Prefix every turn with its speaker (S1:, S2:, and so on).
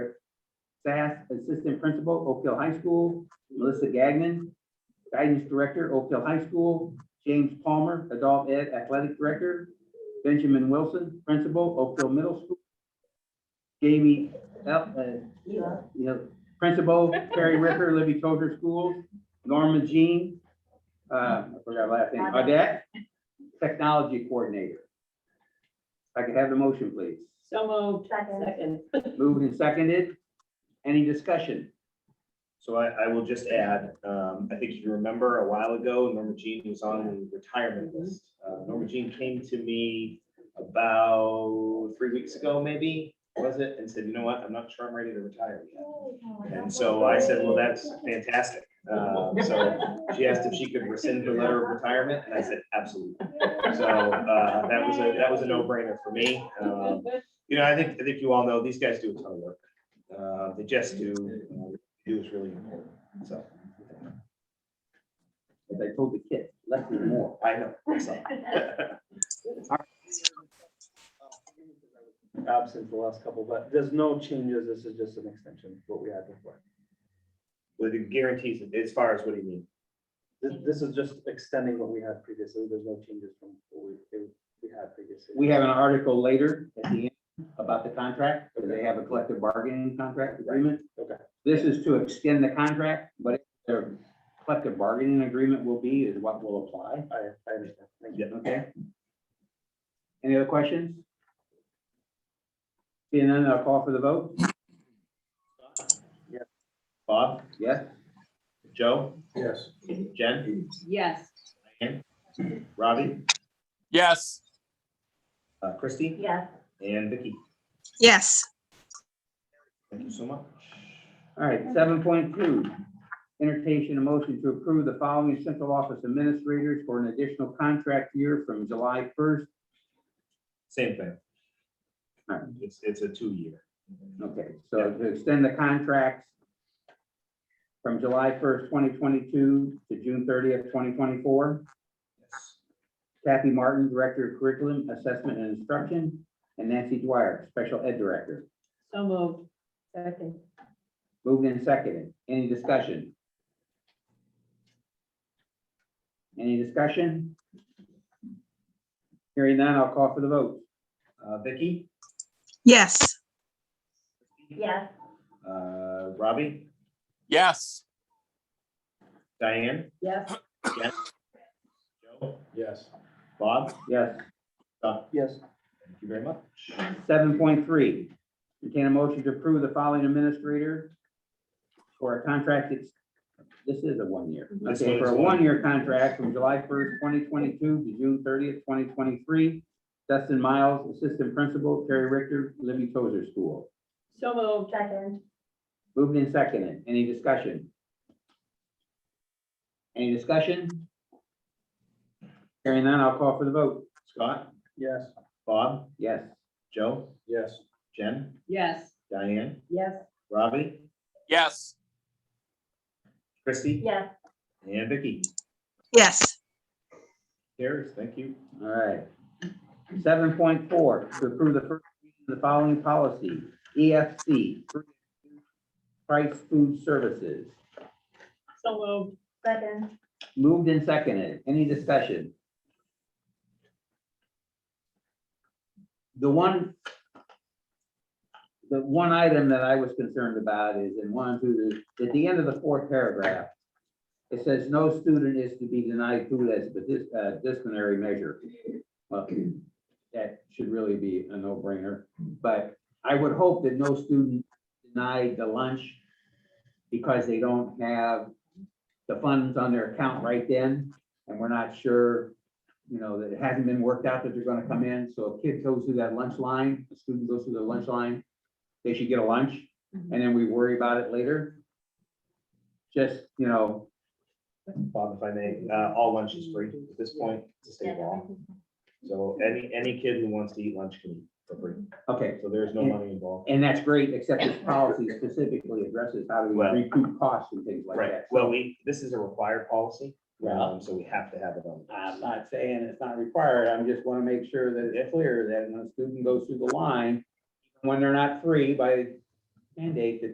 S1: SAS Assistant Principal, Oak Hill High School, Melissa Gagnon, Guidance Director, Oak Hill High School, James Palmer, Adult Ed Athletic Director, Benjamin Wilson, Principal, Oak Hill Middle School, Jamie, El- uh,
S2: Ela,
S1: you know, Principal, Terry Ricker, Libby Tozer Schools, Norma Jean, uh, I forgot her last name, Audette, Technology Coordinator. If I could have the motion, please.
S3: So moved.
S2: second.
S3: Second.
S1: Moved and seconded. Any discussion?
S4: So I, I will just add, um, I think if you remember a while ago, Norma Jean was on the retirement list. Uh, Norma Jean came to me about three weeks ago, maybe, was it? And said, you know what, I'm not sure I'm ready to retire yet. And so I said, well, that's fantastic. Um, so she asked if she could rescind her letter of retirement, and I said, absolutely. So, uh, that was a, that was a no-brainer for me. Um, you know, I think, I think you all know, these guys do a ton of work. Uh, They just do, uh, do is really important, so.
S1: As I told the kids, less is more.
S4: I know. so.
S5: absent the last couple, but there's no changes. This is just an extension of what we had before.
S4: With the guarantees, as far as what do you mean?
S5: This, this is just extending what we had previously. There's no changes from what we, we had previously.
S1: We have an article later at the end about the contract, because they have a collective bargaining contract agreement.
S5: Okay.
S1: This is to extend the contract, but their collective bargaining agreement will be is what will apply.
S5: I, I understand. Thank you.
S4: Yeah.
S1: Okay. Any other questions? Seeing none, I'll call for the vote.
S4: Bob,
S1: Yes,
S4: Joe,
S6: Yes.
S4: Jen,
S3: Yes.
S4: Robbie,
S6: Yes.
S4: uh, Christie,
S2: Yes,
S4: and Vicky.
S7: Yes,
S4: Thank you so much.
S1: all right, seven point two. Entertain a motion to approve the following central office administrators for an additional contract year from July first.
S4: Same thing.
S1: Alright.
S4: It's, it's a two-year.
S1: Okay, so to extend the contracts from July first, twenty twenty-two to June thirtieth, twenty twenty-four.
S4: Yes.
S1: Kathy Martin, Director of Curriculum, Assessment and Instruction, and Nancy Dwyer, Special Ed Director.
S3: So moved. Second.
S1: Moved and seconded. Any discussion? Any discussion? Hearing none, I'll call for the vote.
S4: Uh, Vicky,
S7: yes,
S2: yes,
S4: uh, Robbie,
S6: Yes.
S4: Diane,
S3: Yes.
S4: Jen, Joe,
S6: Yes.
S4: Bob,
S1: Yes,
S5: Yes,
S4: thank you very much.
S1: seven point three. Entertain a motion to approve the following administrator for a contract, it's, this is a one-year.
S4: This
S1: Okay,
S4: one
S1: for
S4: is
S1: a
S4: one.
S1: one-year contract from July first, twenty twenty-two to June thirtieth, twenty twenty-three. Dustin Miles, Assistant Principal, Terry Richter, Libby Tozer School.
S3: So moved.
S2: second,
S1: Moved and seconded. Any discussion? Any discussion? Hearing none, I'll call for the vote.
S4: Scott,
S5: yes.
S4: Bob,
S1: Yes,
S4: Joe,
S6: Yes.
S4: Jen,
S3: Yes.
S4: Diane,
S3: Yes.
S4: Robbie,
S6: Yes.
S4: Christie,
S2: yes,
S4: and Vicky.
S7: yes,
S4: Carries, thank you.
S1: all right. Seven point four, to approve the first, reading of the following policy, E EFC, price food services.
S3: So moved.
S2: second,
S1: Moved and seconded. Any discussion? The one, the one item that I was concerned about is in one, through the, at the end of the fourth paragraph, it says, no student is to be denied food as a dis- uh, disciplinary measure. Well, That should really be a no-brainer, but I would hope that no student denied the lunch because they don't have the funds on their account right then, and we're not sure, you know, that it hasn't been worked out that they're gonna come in, so a kid goes through that lunch line, a student goes through the lunch line, they should get a lunch, and then we worry about it later. Just, you know,
S4: Bob, if I may, uh, all lunch is free at this point, it's a state law. So any, any kid who wants to eat lunch can eat for free.
S1: okay,
S4: So there's no money involved.
S1: and that's great, except this policy specifically addresses how do we
S4: Well-
S1: recoup costs and things like
S4: Right,
S1: that.
S4: well, we, this is a required policy,
S1: Well,
S4: um, so we have to have it on.
S1: I'm not saying it's not required, I'm just wanna make sure that it's clear that when a student goes through the line, when they're not free by mandate, that